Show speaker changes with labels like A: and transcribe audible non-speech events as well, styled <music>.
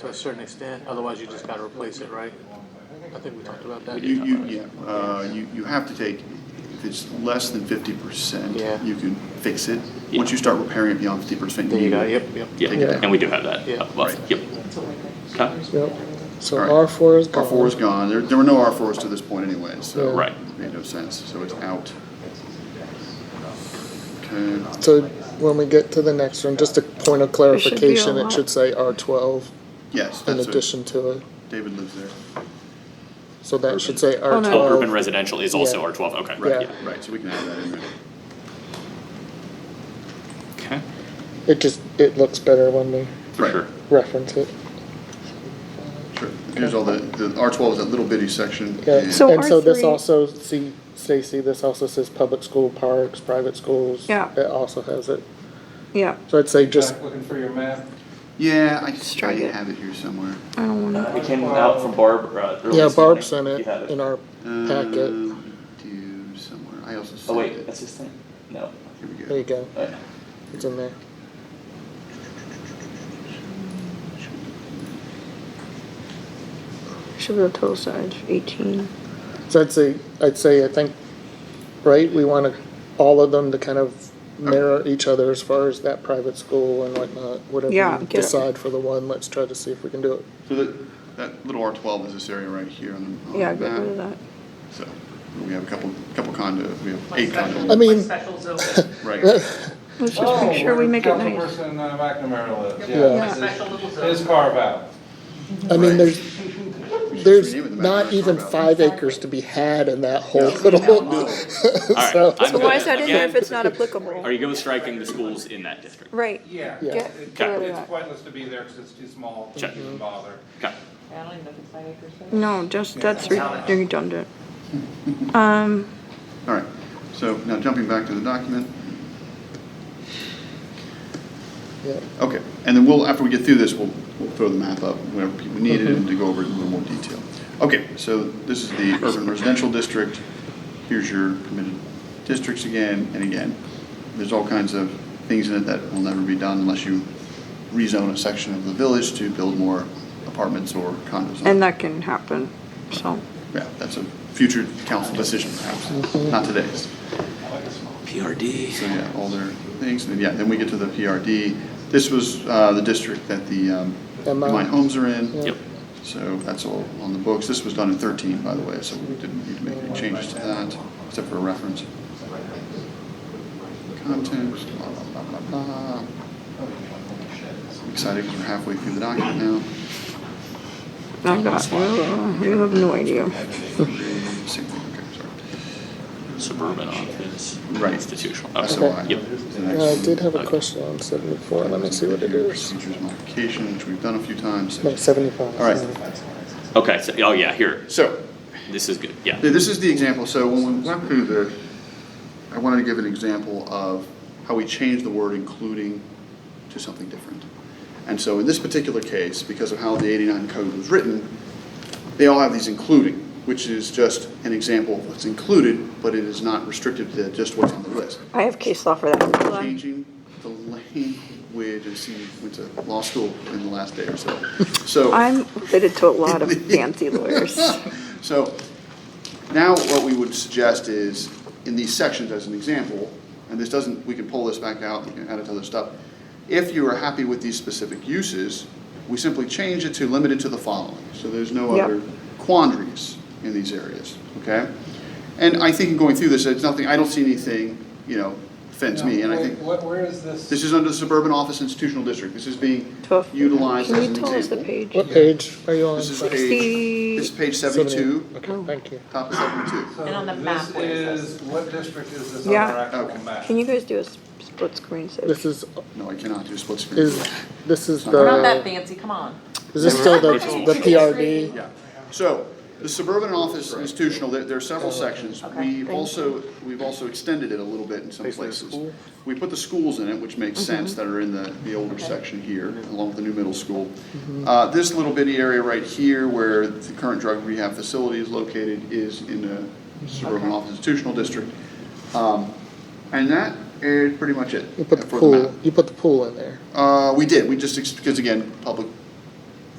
A: to a certain extent, otherwise you just gotta replace it, right? I think we talked about that.
B: But you, you, yeah, uh, you, you have to take, if it's less than fifty percent,
A: Yeah.
B: you can fix it.
C: Yeah.
B: Once you start repairing it beyond fifty percent.
A: There you go, yep, yep.
C: Yeah,
B: Take it down.
C: and we do have that.
A: Yeah.
C: up above.
B: Right.
C: Yep. Okay.
D: Yep. So
B: All right.
D: R four is
B: R
D: gone.
B: four is gone, there, there were no R fours to this point anyway, so.
D: Yeah.
C: Right.
B: it Made no sense, so it's out. Okay,
D: So when we get to the next one, just a point of
E: should be a
D: clarification, it
E: lot.
D: should say R twelve
B: yes,
D: in
B: that's what,
D: addition to it.
B: David lives there.
D: So that should say
E: Oh,
D: R
E: no.
C: Oh, urban
D: twelve.
C: residential is also
D: Yeah.
C: R twelve, okay,
D: Yeah.
C: right,
B: Right, so we can add that in there.
C: yeah, okay,
D: It just, it looks better when we
C: for
B: Right.
C: sure.
D: reference it.
B: Sure, here's all the, the R twelve is that little bitty section.
D: Yeah.
B: and-
E: So
D: And so this
E: R3
D: also, see, Stacy, this also says public school parks, private schools.
E: Yeah.
D: It also has it.
E: Yeah,
D: So I'd say just,
F: Jack, looking for your map.
B: Yeah, I, I
E: Strike it.
B: have it here somewhere.
E: I don't want
C: Uh, It came out from Barb, uh, earlier
D: yeah,
C: this morning.
D: Barb sent
C: You
D: it
C: had it.
D: in our packet.
B: Um, Do somewhere, I also
C: Oh,
B: saved
C: wait,
B: it.
C: that's his thing? No.
B: Here we
D: There you
B: go.
D: go.
C: Oh, yeah.
D: It's in there.
E: to, should be the total size, eighteen.
D: So I'd say, I'd say, I think, right, we want to, all of them to kind of mirror each other as far as that private school and whatnot.
E: Yeah,
D: Whatever we
E: get it.
D: decide for the one, let's try to see if we can do it.
B: So that, that little R twelve is this area right here on the, on the
E: Yeah, get rid of
B: map.
E: that.
B: So, we have a couple, couple condo, we have
G: Like
B: eight
G: special-
B: condos.
D: I mean-
G: like
D: <laughs>
G: Special zone,
B: Right,
E: Let's just make sure we make it nice.
F: Oh, Councilperson uh, McNamara lives,
D: Yeah.
F: yeah.
G: like special little
F: His
G: zone.
F: carve out.
D: I mean,
B: Right.
D: there's,
B: We should
D: there's
B: rename it the
D: not
B: Mackinac
D: even
B: Carve Out.
D: five acres to be had in that whole <laughs> little.
C: All right,
D: So,
C: I'm
E: So why is
C: good.
E: that in there if
C: Again,
E: it's not applicable?
C: Are you good with striking the schools in that district?
E: Right,
F: Yeah.
D: Yeah.
E: get,
F: It-
E: get rid of
F: It's
E: that.
F: pointless to be there because it's too small,
C: Check.
F: doesn't even bother.
C: Okay.
G: I don't even know if it's five acres. though.
E: No, just, that's re- redundant. Um,
B: all right, so now jumping back to the document.
D: yeah.
B: Okay, and then we'll, after we get through this, we'll, we'll throw the map up whenever people need it and to go over it in a little more detail. Okay, so this is the urban residential district. Here's your permitted districts again and again. There's all kinds of things in it that will never be done unless you rezone a section of the village to build more apartments or condos. on it.
E: And that can happen, so.
B: Yeah, that's a future council decision perhaps, not today's.
C: PRD.
B: So yeah, all their things, and yeah, then we get to the PRD. This was uh, the district that the um,
D: MI.
B: Mine Homes are in.
C: Yep.
B: So that's all on the books. This was done in 13, by the way, so we didn't need to make any changes to that, except for reference. Content, blah, blah, blah, blah, blah. I'm Excited because we're halfway through the document now.
E: I've got, you have no idea.
B: Same thing, okay, sorry.
C: Suburban office.
B: Right.
C: Institutional. Okay.
B: SOI.
C: Yep.
B: is the next
D: Uh, I
B: one.
D: did have a question on seventy-four. Let me see what it is.
B: Features modification, which we've done a few times.
D: No, seventy-five.
B: All right,
C: Okay, so, oh, yeah, here,
B: so,
C: this is good, yeah.
B: th- this is the example, so when we went through the, I wanted to give an example of how we changed the word including to something different. And so in this particular case, because of how the eighty-nine code was written, they all have these including, which is just an example of what's included, but it is not restricted to just what's on the list.
E: I have case law for that. Hold on.
B: changing the language, and see, went to law school in the last day or so. So,
E: I'm related to a lot of fancy <laughs> lawyers.
B: so now what we would suggest is, in these sections as an example, and this doesn't, we can pull this back out, we can add it to other stuff. If you are happy with these specific uses, we simply change it to limited to the following, so there's no
E: Yep.
B: other quandaries in these areas, okay? And I think in going through this, it's nothing, I don't see anything, you know, offends me, and I
F: Now,
B: think.
F: wait, what- Where is this?
B: This is under the suburban office institutional district. This is being
E: Twelve.
B: utilized
E: Can
B: as an
E: you
B: example.
E: tell us the page?
D: What page are you on?
B: This is
D: Sorry.
B: page, this is page seventy-two,
D: Okay, thank you.
B: top of seventy-two.
F: So
G: And on the map,
F: This
G: where is
F: is, what district is this on
E: Yeah.
F: our actual
B: Okay.
F: map?
E: Can you guys do a s- split screen so?
D: This is,
B: No, I cannot do split screen.
D: is, this is
G: We're not that
D: the,
G: fancy, come on.
D: is this still the, the PRD?
B: Yeah. So, the suburban office institutional, there, there are several sections. We've also, we've also extended it a little bit in some
A: Basically,
B: places.
A: school.
B: We put the schools in it, which makes sense, that are in the, the older section here, along with the new middle school. Uh, this little bitty area right here where the current drug rehab facility is located is in the suburban office institutional district. Um, and that is pretty much it
D: You put the
B: for the map.
D: pool, you put the pool in there.
B: Uh, we did, we just, because again, public